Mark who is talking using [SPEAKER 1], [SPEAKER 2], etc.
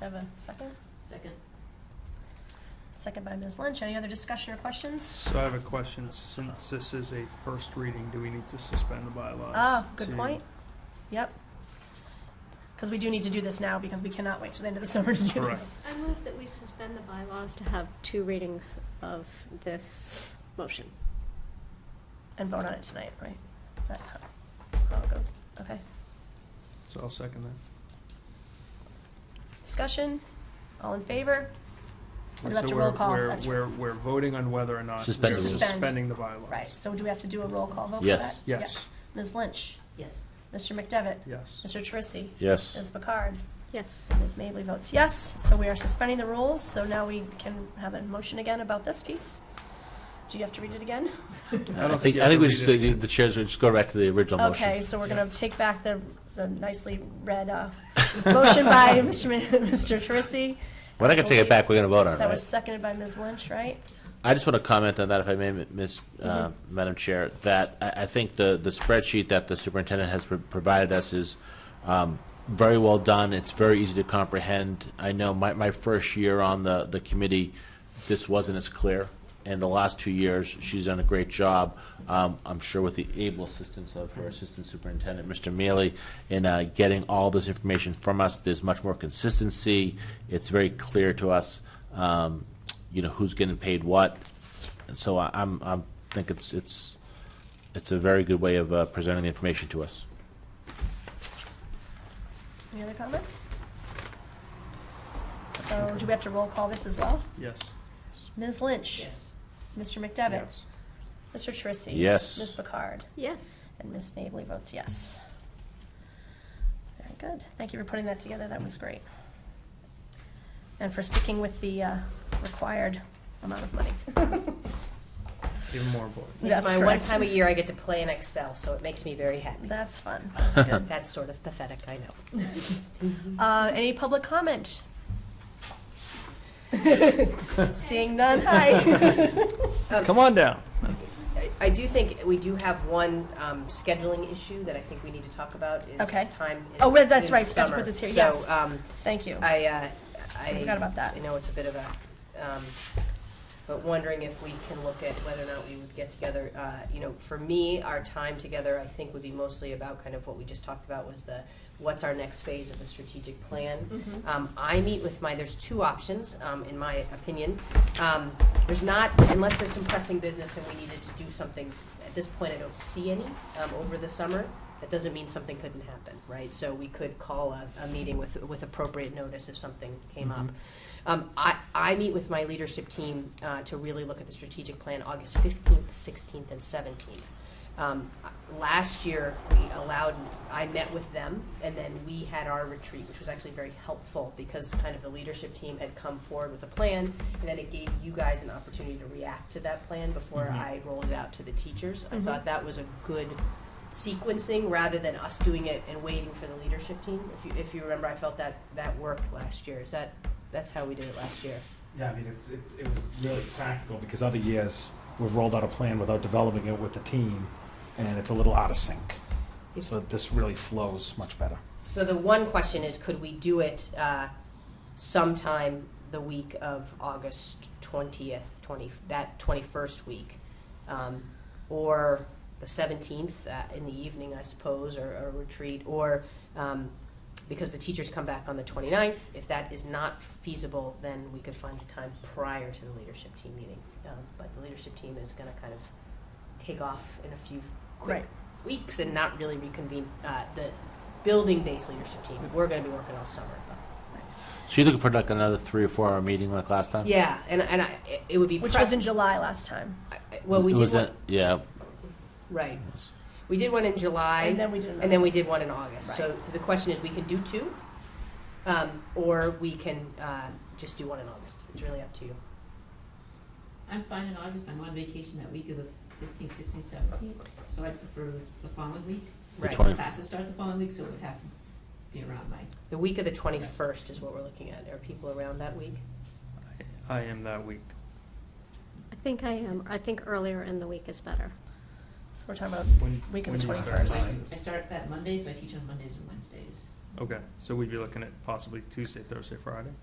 [SPEAKER 1] I have a second?
[SPEAKER 2] Second.
[SPEAKER 1] Second by Ms. Lynch. Any other discussion or questions?
[SPEAKER 3] So I have a question, since this is a first reading, do we need to suspend the bylaws?
[SPEAKER 1] Ah, good
[SPEAKER 3] to-
[SPEAKER 1] point. Yep. Because we do need to do this now because we cannot wait till the end of the summer to do
[SPEAKER 3] Correct.
[SPEAKER 1] this.
[SPEAKER 2] I move that we suspend the bylaws to have two readings of this motion.
[SPEAKER 1] And vote on it tonight, right? That's how it goes. Okay.
[SPEAKER 3] So I'll second that.
[SPEAKER 1] Discussion? All in favor? We'd have
[SPEAKER 3] So
[SPEAKER 1] to roll
[SPEAKER 3] we're-
[SPEAKER 1] call,
[SPEAKER 3] We're,
[SPEAKER 1] that's-
[SPEAKER 3] we're, we're voting on whether or not
[SPEAKER 4] Suspend
[SPEAKER 3] we're
[SPEAKER 1] the rules. Suspend.
[SPEAKER 3] suspending the bylaws.
[SPEAKER 1] Right. So do we have to do a roll call vote for
[SPEAKER 4] Yes.
[SPEAKER 1] that?
[SPEAKER 3] Yes.
[SPEAKER 1] Ms. Lynch?
[SPEAKER 2] Yes.
[SPEAKER 1] Mr. McDevitt?
[SPEAKER 3] Yes.
[SPEAKER 1] Mr. Trissy?
[SPEAKER 4] Yes.
[SPEAKER 1] Ms. Picard?
[SPEAKER 2] Yes.
[SPEAKER 1] Ms. Mably votes yes, so we are suspending the rules, so now we can have a motion again about this piece. Do you have to read it again?
[SPEAKER 3] I
[SPEAKER 4] I
[SPEAKER 3] don't
[SPEAKER 4] think,
[SPEAKER 3] think you
[SPEAKER 4] I
[SPEAKER 3] have
[SPEAKER 4] think
[SPEAKER 3] to
[SPEAKER 4] we
[SPEAKER 3] read
[SPEAKER 4] just,
[SPEAKER 3] it.
[SPEAKER 4] the the chairs, just go back to the original motion.
[SPEAKER 1] Okay, so we're gonna take back the, the nicely read, uh, motion by Mr. Ma- Mr. Trissy.
[SPEAKER 4] We're not gonna take it back, we're gonna vote on it,
[SPEAKER 1] That was
[SPEAKER 4] right?
[SPEAKER 1] seconded by Ms. Lynch, right?
[SPEAKER 4] I just wanna comment on that, if I may, Ms., uh, Madam Chair, that I, I think the, the spreadsheet that the superintendent has pro- provided us is, um, very well done, it's very easy to comprehend. I know my, my first year on the, the committee, this wasn't as clear, and the last two years, she's done a great job, um, I'm sure with the able assistance of her assistant superintendent, Mr. Mealy, in uh, getting all this information from us. There's much more consistency. It's very clear to us, um, you know, who's getting paid what. And so I, I'm, I'm think it's, it's, it's a very good way of uh, presenting the information to us.
[SPEAKER 1] Any other comments? So do we have to roll call this as well?
[SPEAKER 3] Yes.
[SPEAKER 1] Ms. Lynch? Mr. McDevitt?
[SPEAKER 3] Yes.
[SPEAKER 1] Mr. Trissy?
[SPEAKER 4] Yes.
[SPEAKER 1] Ms. Picard?
[SPEAKER 2] Yes.
[SPEAKER 1] And Ms. Mably votes yes. Very good. Thank you for putting that together. That was great. And for sticking with the uh, required amount of money.
[SPEAKER 3] Even more important.
[SPEAKER 1] That's
[SPEAKER 5] It's my one
[SPEAKER 1] correct.
[SPEAKER 5] time a year I get to play in Excel, so it makes me very happy.
[SPEAKER 1] That's fun. That's good.
[SPEAKER 5] That's sort of pathetic, I know.
[SPEAKER 1] Uh, Any public comment? Seeing none, hi.
[SPEAKER 3] Come on down.
[SPEAKER 5] I- I do think we do have one um, scheduling issue that I think we need to talk about is
[SPEAKER 1] Okay.
[SPEAKER 5] time. in
[SPEAKER 1] Oh, well, that's
[SPEAKER 5] between
[SPEAKER 1] right. Forgot to put
[SPEAKER 5] summer.
[SPEAKER 1] this here,
[SPEAKER 5] So,
[SPEAKER 1] yes.
[SPEAKER 5] um,
[SPEAKER 1] Thank you.
[SPEAKER 5] I, uh, I.
[SPEAKER 1] I forgot about that.
[SPEAKER 5] I know it's a bit of a, um, but wondering if we can look at whether or not we would get together. Uh, you know, for me, our time together, I think, would be mostly about kind of what we just talked about was the, what's our next phase of the strategic plan? Um, I meet with my, there's two options, um, in my opinion. Um, there's not, unless there's some pressing business and we needed to do something, at this point, I don't see any, um, over the summer. That doesn't mean something couldn't happen, right? So we could call a, a meeting with, with appropriate notice if something came up. Um, I, I meet with my leadership team uh, to really look at the strategic plan August 15th, 16th, and 17th. Um, uh, last year, we allowed, I met with them, and then we had our retreat, which was actually very helpful because kind of the leadership team had come forward with a plan, and then it gave you guys an opportunity to react to that plan before
[SPEAKER 3] Mhm.
[SPEAKER 5] I rolled it out to the teachers.
[SPEAKER 1] Mhm.
[SPEAKER 5] I thought that was a good sequencing rather than us doing it and waiting for the leadership team. If you, if you remember, I felt that that worked last year. Is that that's how we did it last year?
[SPEAKER 6] Yeah, I mean, it's, it's, it was really practical because other years we've rolled out a plan without developing it with the team and it's a little out of sync. So this really flows much better.
[SPEAKER 5] So the one question is, could we do it uh, sometime the week of August twentieth, twenty that twenty-first week, um, or the seventeenth uh, in the evening, I suppose, or a retreat, or um, because the teachers come back on the 29th. If that is not feasible, then we could find a time prior to the leadership team meeting. Um, but the leadership team is going to kind of take off in a few quick
[SPEAKER 1] Right.
[SPEAKER 5] weeks and not really reconvene uh, the building-based leadership team. We're going to be working all summer.
[SPEAKER 4] So you're looking for like another three or four hour meeting like last time?
[SPEAKER 5] Yeah, and and I, it- it would be
[SPEAKER 1] Which
[SPEAKER 5] pre-
[SPEAKER 1] was in July last time.
[SPEAKER 5] I- I- well, we
[SPEAKER 4] It
[SPEAKER 5] did
[SPEAKER 4] was
[SPEAKER 5] one,
[SPEAKER 4] a- Yeah.
[SPEAKER 5] right. We did one in July,
[SPEAKER 1] And then we did another.
[SPEAKER 5] and then we did one in August.
[SPEAKER 1] Right.
[SPEAKER 5] So the question is, we can do two, um, or we can uh, just do one in August. It's really up to you.
[SPEAKER 7] I'm fine in August, I'm on vacation that week of the fifteenth, sixteenth, seventeenth, so I prefer this- the following week.
[SPEAKER 4] The
[SPEAKER 5] Right.
[SPEAKER 4] 20
[SPEAKER 7] Classes start the following week, so it would have to be around my,
[SPEAKER 5] The week of the 21st is what we're looking at. Are people around that week?
[SPEAKER 3] I am that week.
[SPEAKER 2] I think I am, I think earlier in the week is better.
[SPEAKER 1] So we're talking about
[SPEAKER 3] When-
[SPEAKER 1] week of
[SPEAKER 3] when
[SPEAKER 1] the
[SPEAKER 3] do you-
[SPEAKER 1] 21st.
[SPEAKER 7] I start that Monday, so I teach on Mondays and Wednesdays.
[SPEAKER 3] Okay, so we'd be looking at possibly Tuesday, Thursday, Friday?